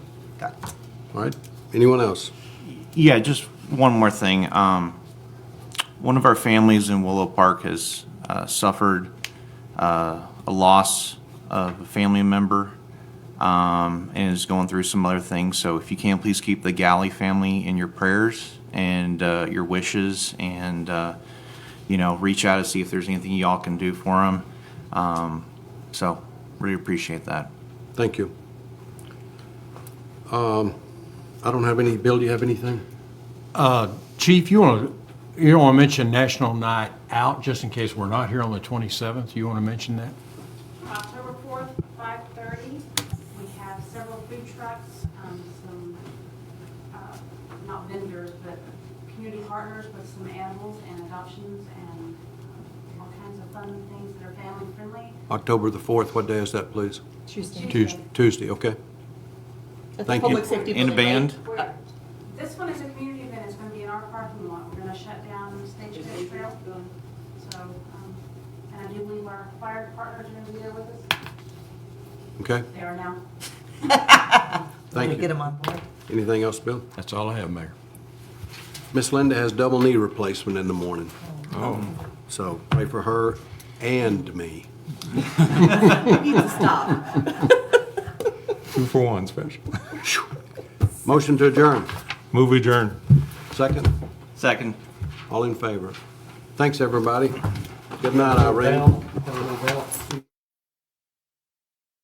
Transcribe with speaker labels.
Speaker 1: That-
Speaker 2: All right, anyone else?
Speaker 3: Yeah, just one more thing. Um, one of our families in Willow Park has uh, suffered uh, a loss of a family member um, and is going through some other things. So, if you can, please keep the Galley family in your prayers and uh, your wishes, and uh, you know, reach out to see if there's anything y'all can do for them. Um, so, really appreciate that.
Speaker 2: Thank you. Um, I don't have any, Bill, do you have anything?
Speaker 4: Chief, you want to, you want to mention National Night Out, just in case we're not here on the 27th? You want to mention that?
Speaker 5: October 4th, 5:30, we have several food trucks, um, some, uh, not vendors, but community partners with some animals and adoptions and um, all kinds of fun things that are family friendly.
Speaker 2: October the 4th, what day is that, please?
Speaker 6: Tuesday.
Speaker 2: Tues- Tuesday, okay.
Speaker 6: At the
Speaker 2: Thank you.
Speaker 6: Public Safety
Speaker 3: In a
Speaker 6: Building,
Speaker 3: band.
Speaker 6: right? Uh,
Speaker 5: We're- This one is a community event, it's going to be in our parking lot, we're going to shut down Stagecoach Trail. So, um, and I do believe our fire partners are going to be there with us,
Speaker 2: Okay,
Speaker 5: they are now.
Speaker 2: thank
Speaker 1: Get
Speaker 2: you.
Speaker 1: him on board.
Speaker 2: Anything else, Bill?
Speaker 4: That's all I have, Mayor.
Speaker 2: Miss Linda has double knee replacement in the morning. Oh. So pray for her and me.
Speaker 6: You need to stop.
Speaker 7: Two for one special.
Speaker 2: Motion to adjourn.
Speaker 7: Move adjourn.
Speaker 2: Second,
Speaker 3: Second.
Speaker 2: all in favor. Thanks, everybody. Good night, Irene.